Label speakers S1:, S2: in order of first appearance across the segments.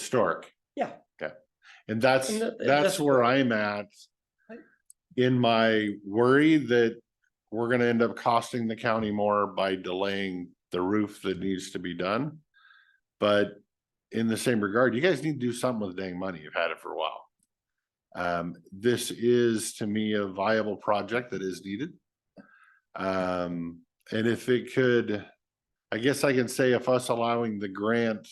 S1: Historic.
S2: Yeah.
S1: Okay, and that's,
S2: And that- and
S1: that's
S2: that's-
S1: where I'm at.
S2: Right.
S1: In my worry that we're gonna end up costing the county more by delaying the roof that needs to be done. But in the same regard, you guys need to do something with the dang money. You've had it for a while. Um, this is to me a viable project that is needed. Um, and if it could, I guess I can say if us allowing the grant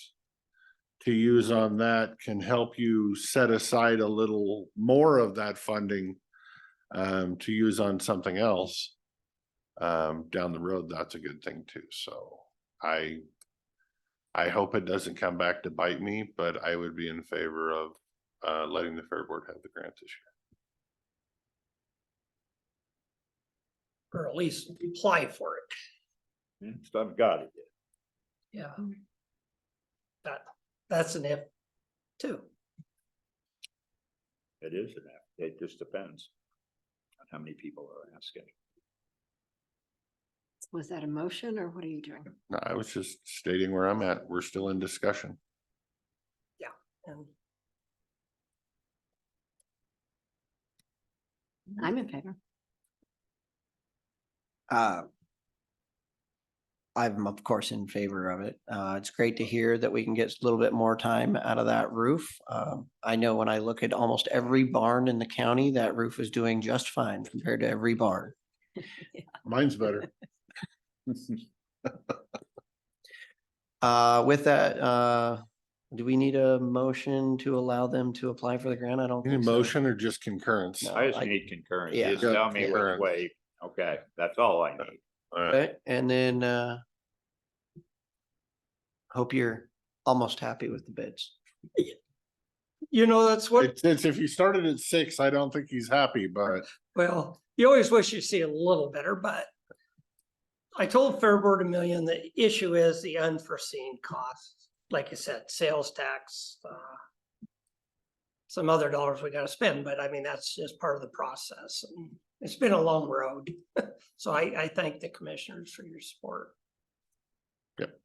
S1: to use on that can help you set aside a little more of that funding um, to use on something else um, down the road, that's a good thing too. So I I hope it doesn't come back to bite me, but I would be in favor of uh, letting the fair board have the grant this year.
S2: or at least apply for it.
S3: I've got it.
S2: Yeah. That, that's an if too.
S3: It is an app. It just depends on how many people are asking.
S4: Was that a motion or what are you doing?
S1: No, I was just stating where I'm at. We're still in discussion.
S2: And
S4: I'm in favor.
S5: Uh, I'm of course in favor of it. Uh, it's great to hear that we can get a little bit more time out of that roof. Um, I know when I look at almost every barn in the county, that roof is doing just fine compared to every barn.
S1: Mine's better.
S5: Uh, with that, uh, do we need a motion to allow them to apply for the grant? I don't.
S1: Any
S5: think so.
S1: motion or just concurrence?
S5: No.
S3: I just
S5: I-
S3: need concurrence.
S5: Yeah.
S3: Just tell me which
S1: Concurrence.
S3: way. Okay, that's all I need.
S1: All right.
S5: Okay, and then, uh, hope you're almost happy with the bids.
S2: you know, that's what,
S1: It's, it's if you started at six, I don't think he's happy, but
S2: well, you always wish you see a little better, but I told Fairboard a million, the issue is the unforeseen costs. Like you said, sales tax, uh, some other dollars we gotta spend, but I mean, that's just part of the process. and It's been a long road. So I, I thank the commissioners for your support.
S1: Yep.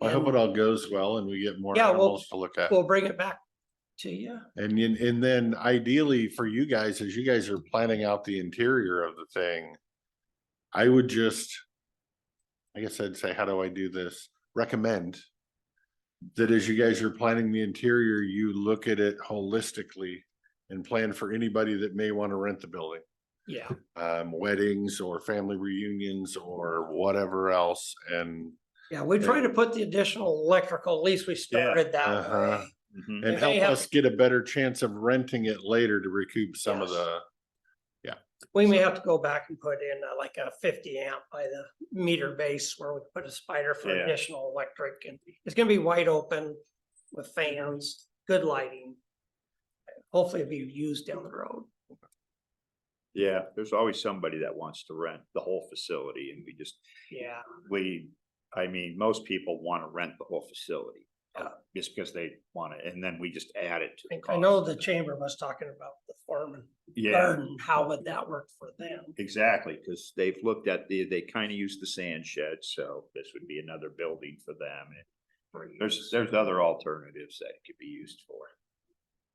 S1: I hope it
S2: And-
S1: all goes well and we get more
S2: Yeah, we'll-
S1: animals to look at.
S2: We'll bring it back to you.
S1: And then, and then ideally for you guys, as you guys are planning out the interior of the thing, I would just, I guess I'd say, how do I do this? Recommend that as you guys are planning the interior, you look at it holistically and plan for anybody that may want to rent the building.
S2: Yeah,
S1: Um, weddings or family reunions or whatever else and,
S2: yeah, we try to put the additional electrical, at least we started that
S1: uh-huh.
S2: way.
S1: and
S3: Mhm.
S2: If they
S1: help
S2: have-
S1: us get a better chance of renting it later to recoup some of
S2: Yes.
S1: the
S2: We may have to go back and put in uh, like a fifty amp by the meter base where we put a spider for
S3: Yeah.
S2: additional electric and it's gonna be wide open with fans, good lighting. Hopefully it'll be used down the road.
S3: Yeah, there's always somebody that wants to rent the whole facility and we just,
S2: Yeah,
S3: we, I mean, most people want to rent the whole facility. uh, Just because they want it and then we just add it
S2: I
S3: to the
S2: think- I know
S3: cost.
S2: the chamber was talking about the farm and
S3: Yeah.
S2: garden, how would that work for them?
S3: Exactly, because they've looked at the, they kind of use the sand shed, so this would be another building for them.
S2: for you?
S3: There's, there's other alternatives that it could be used for.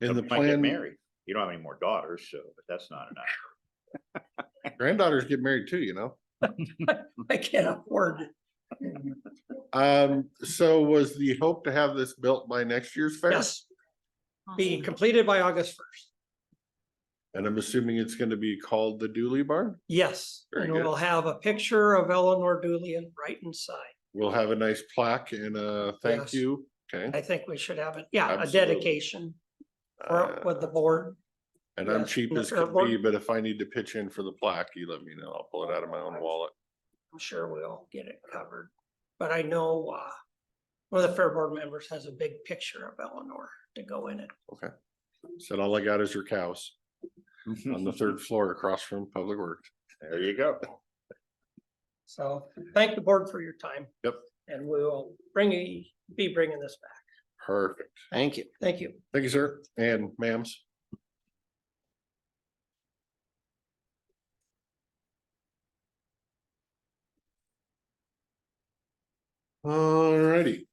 S1: In the
S3: Somebody might get
S1: plan,
S3: Married, you don't have any more daughters, so, but that's not enough.
S1: granddaughters get married too, you know? Mm.
S2: I can't afford it.
S1: Um, so was the hope to have this built by next year's fair?
S2: Yes, be completed by August first.
S1: And I'm assuming it's gonna be called the Dooley Barn?
S2: Yes,
S1: Very
S2: and
S1: good.
S2: we'll have a picture of Eleanor Dooley and right inside.
S1: We'll have a nice plaque and a thank
S2: Yes.
S1: you, okay?
S2: I think we should have it, yeah, a
S1: Absolutely.
S2: dedication for it with the
S1: Uh,
S2: board.
S1: And I'm
S2: yes,
S1: cheap
S2: the
S1: as
S2: fair
S1: can
S2: board.
S1: be, but if I need to pitch in for the plaque, you let me know. I'll pull it out of my own wallet.
S2: I'm sure we'll get it covered. But I know uh one of the fair board members has a big picture of Eleanor to go in it.
S1: Said all I got is your cows on the third floor across from Public Works.
S3: There you go.
S2: So thank the board for your time.
S1: Yep.
S2: And we will bring, you- be bringing this back.
S1: Perfect.
S5: Thank you.
S2: Thank you.
S1: Thank you, sir, and ma'ams. Alrighty.